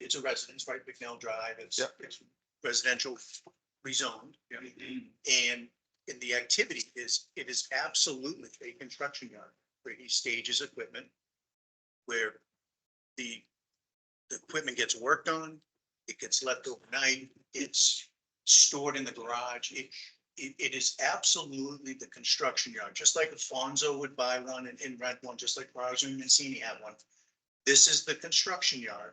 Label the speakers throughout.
Speaker 1: it's a residence, right? McNeil Drive, it's,
Speaker 2: Yep.
Speaker 1: it's residential rezoned. And, and the activity is, it is absolutely a construction yard where he stages equipment, where the, the equipment gets worked on, it gets left overnight, it's stored in the garage. It, it, it is absolutely the construction yard, just like Alfonso would buy one and, and rent one, just like Roger Mancini had one. This is the construction yard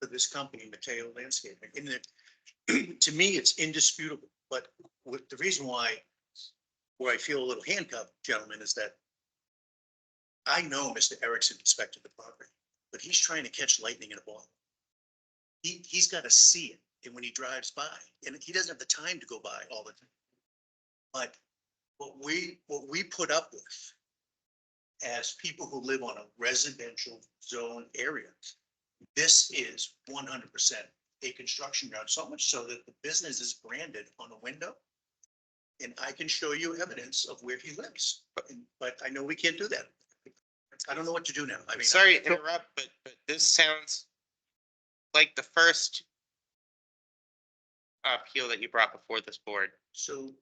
Speaker 1: for this company, Mateo Landscaping. And it, to me, it's indisputable, but what, the reason why, where I feel a little handcuffed, gentlemen, is that I know Mr. Erickson inspected the property, but he's trying to catch lightning in a bottle. He, he's got to see it, and when he drives by, and he doesn't have the time to go by all the time. But what we, what we put up with as people who live on a residential zone area, this is one hundred percent a construction yard, so much so that the business is branded on a window. And I can show you evidence of where he lives, but, but I know we can't do that. I don't know what to do now. I mean,
Speaker 3: Sorry to interrupt, but, but this sounds like the first appeal that you brought before this board.
Speaker 1: so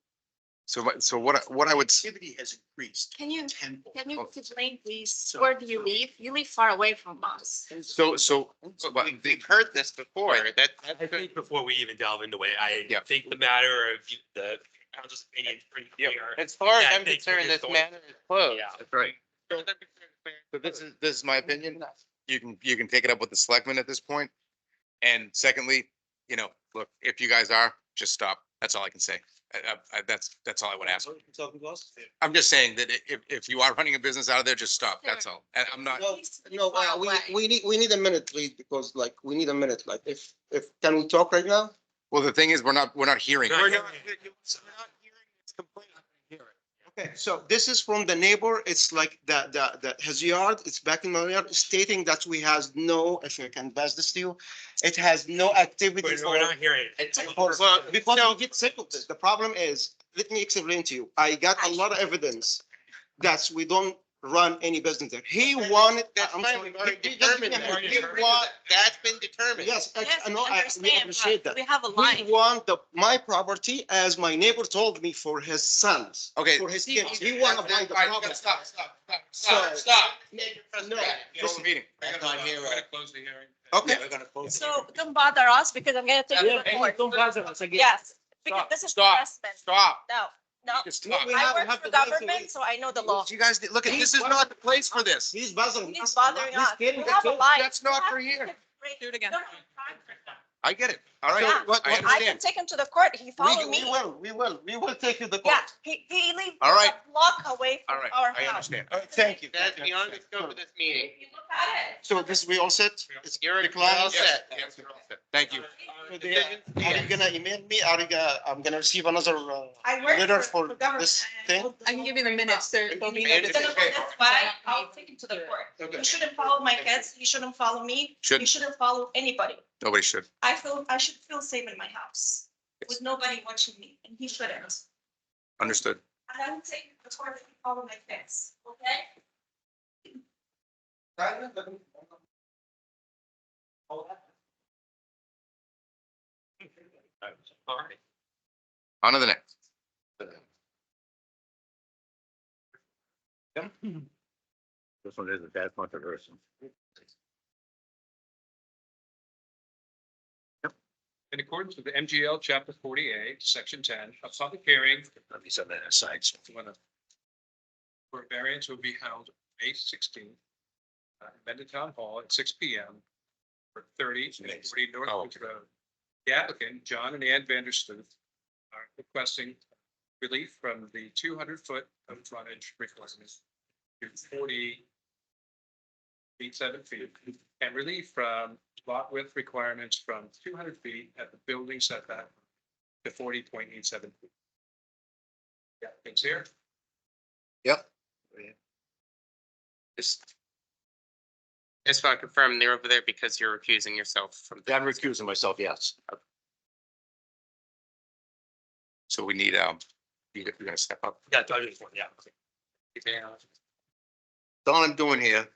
Speaker 2: So, my- so what, I- what I would, s-
Speaker 1: activity has increased
Speaker 4: Can you,
Speaker 1: tenfold.
Speaker 4: can you explain please,
Speaker 1: So-
Speaker 4: where do you live? You live far away from us.
Speaker 2: so, so, but
Speaker 3: We-
Speaker 2: the-
Speaker 3: We've heard this before, that,
Speaker 5: I
Speaker 3: that's good.
Speaker 5: think before we even delve into it, I
Speaker 2: Yeah.
Speaker 5: think the matter of you- the council's opinion is pretty
Speaker 3: Yeah, uh,
Speaker 5: clear.
Speaker 3: As far as
Speaker 5: Yeah, I
Speaker 3: I'm
Speaker 5: think it
Speaker 3: concerned,
Speaker 5: is
Speaker 3: this
Speaker 5: the way-
Speaker 3: matter is closed.
Speaker 5: Yeah.
Speaker 2: that's right.
Speaker 3: As far as I'm concerned, it's
Speaker 2: So this is, this is my opinion. You can, you can take it up with the selectmen at this point. And secondly, you know, look, if you guys are, just stop. That's all I can say. I- I- I- that's, that's all I would ask. I'm just saying that i- if, if you are running a business out of there, just stop. That's all. And I'm not,
Speaker 6: No,
Speaker 4: Please live
Speaker 6: no,
Speaker 4: far
Speaker 6: uh, we,
Speaker 4: away.
Speaker 6: we need, we need a minute, please, because like, we need a minute, like, if, if, can we talk right now?
Speaker 2: well, the thing is, we're not, we're not hearing.
Speaker 3: We're
Speaker 5: Very
Speaker 3: not,
Speaker 5: good.
Speaker 3: we're not hearing this complaint.
Speaker 6: Okay, so this is from the neighbor, it's like the, the, the, his yard, it's back in my yard, stating that we has no, if I can pass this to you, it has no activity.
Speaker 5: We're we're
Speaker 6: or-
Speaker 5: not hearing. it.
Speaker 6: It's- Well, because we get sick of this, the problem is, let me explain to you, I got a lot of evidence that we don't run any business there. He wanted.
Speaker 3: That's
Speaker 6: I'm
Speaker 3: fine,
Speaker 6: sorry,
Speaker 3: we've already
Speaker 6: he- he doesn't-
Speaker 3: determined
Speaker 5: that.
Speaker 6: he
Speaker 5: Already
Speaker 6: want-
Speaker 3: That's been determined.
Speaker 6: Yes, I,
Speaker 4: Yes,
Speaker 6: I know, I,
Speaker 4: understand,
Speaker 6: we
Speaker 4: but
Speaker 6: appreciate that.
Speaker 4: We have a
Speaker 6: We
Speaker 4: line.
Speaker 6: want the, my property as my neighbor told me for his sons,
Speaker 2: Okay,
Speaker 6: for his kids. We
Speaker 3: That's-
Speaker 6: want to buy
Speaker 3: that's-
Speaker 6: the
Speaker 3: all right,
Speaker 6: property.
Speaker 3: Stop, stop, stop,
Speaker 6: So-
Speaker 3: stop, stop.
Speaker 6: No,
Speaker 2: close the meeting.
Speaker 3: Back on here, uh,
Speaker 6: okay,
Speaker 1: We're gonna close. it.
Speaker 4: So don't bother us because I'm gonna take you to court.
Speaker 5: Don't bother us again.
Speaker 4: Yes, because this is
Speaker 2: Stop.
Speaker 4: harassment.
Speaker 2: Stop.
Speaker 4: No, no.
Speaker 2: Just
Speaker 6: No,
Speaker 2: stop.
Speaker 6: we
Speaker 4: I
Speaker 6: have-
Speaker 4: work
Speaker 6: have
Speaker 4: for
Speaker 6: the right to
Speaker 4: government,
Speaker 6: leave.
Speaker 4: so I know the law.
Speaker 2: You guys, look, at this is not the place for this.
Speaker 6: he's bothering.
Speaker 4: He's
Speaker 6: us.
Speaker 4: bothering
Speaker 6: He's
Speaker 4: us. We
Speaker 6: killing the
Speaker 4: have a
Speaker 6: kids.
Speaker 4: line.
Speaker 2: That's not
Speaker 4: We have
Speaker 2: for
Speaker 4: to
Speaker 2: here.
Speaker 4: take a break.
Speaker 7: Do it again.
Speaker 4: No, no, I'm fine.
Speaker 2: I get it. All right.
Speaker 4: Yeah.
Speaker 2: I
Speaker 4: I can
Speaker 2: understand.
Speaker 4: take him to the court. He
Speaker 6: We,
Speaker 4: followed
Speaker 6: we
Speaker 4: me.
Speaker 6: will, we will, we will take you the court.
Speaker 4: Yeah, he, he lives
Speaker 2: All right.
Speaker 4: a block away
Speaker 2: All
Speaker 4: from
Speaker 2: right.
Speaker 4: our
Speaker 2: I
Speaker 4: house.
Speaker 2: understand.
Speaker 6: All right, Thank you.
Speaker 3: That's beyond the scope of this meeting.
Speaker 4: You look at it.
Speaker 6: So this, we all set? It's-
Speaker 3: You're
Speaker 6: the
Speaker 3: you're all
Speaker 6: client-
Speaker 3: set.
Speaker 2: Yes, yes, yes. Thank you.
Speaker 6: Are
Speaker 3: Decisions?
Speaker 6: you gonna email me? Are you gonna, I'm gonna receive another, uh,
Speaker 4: I work
Speaker 6: Letter
Speaker 4: for
Speaker 6: for
Speaker 4: for government.
Speaker 6: this
Speaker 4: and
Speaker 6: thing?
Speaker 7: I can give you the minutes, there, there'll be no
Speaker 3: And-
Speaker 7: decision.
Speaker 4: That's why I'll take him to the court.
Speaker 6: Okay.
Speaker 4: You shouldn't follow my kids, you shouldn't follow me,
Speaker 2: Should,
Speaker 4: you shouldn't follow anybody.
Speaker 2: nobody should.
Speaker 4: I feel, I should feel safe in my house with nobody watching me, and he shouldn't.
Speaker 2: Understood.
Speaker 4: And I would take him to the court if you follow my kids, okay?
Speaker 5: All right.
Speaker 2: On to the next.
Speaker 8: This one isn't that controversial.
Speaker 9: In accordance with the MGL Chapter 48, Section 10, a public hearing
Speaker 8: Let me set that aside. so-
Speaker 9: when a- for a variance will be held May 16th, uh, amended town hall at 6 PM for 30 and 40
Speaker 2: Oh,
Speaker 9: Northwoods Road. The applicant, John and Ann Vanderstoof, are requesting relief from the 200-foot of frontage requirement to 40 feet, 7 feet, and relief from lot width requirements from 200 feet at the building setback to 40.87 feet. Yeah, things here.
Speaker 3: Just- I Just want to confirm, they're over there because you're recusing yourself from. the-
Speaker 8: I'm recusing myself, yes.
Speaker 2: So we need, um, you- you're gonna step up.
Speaker 5: Yeah, I just want- yeah.
Speaker 8: All I'm doing here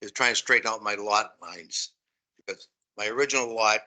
Speaker 8: is trying to straighten out my lot lines. Because my original lot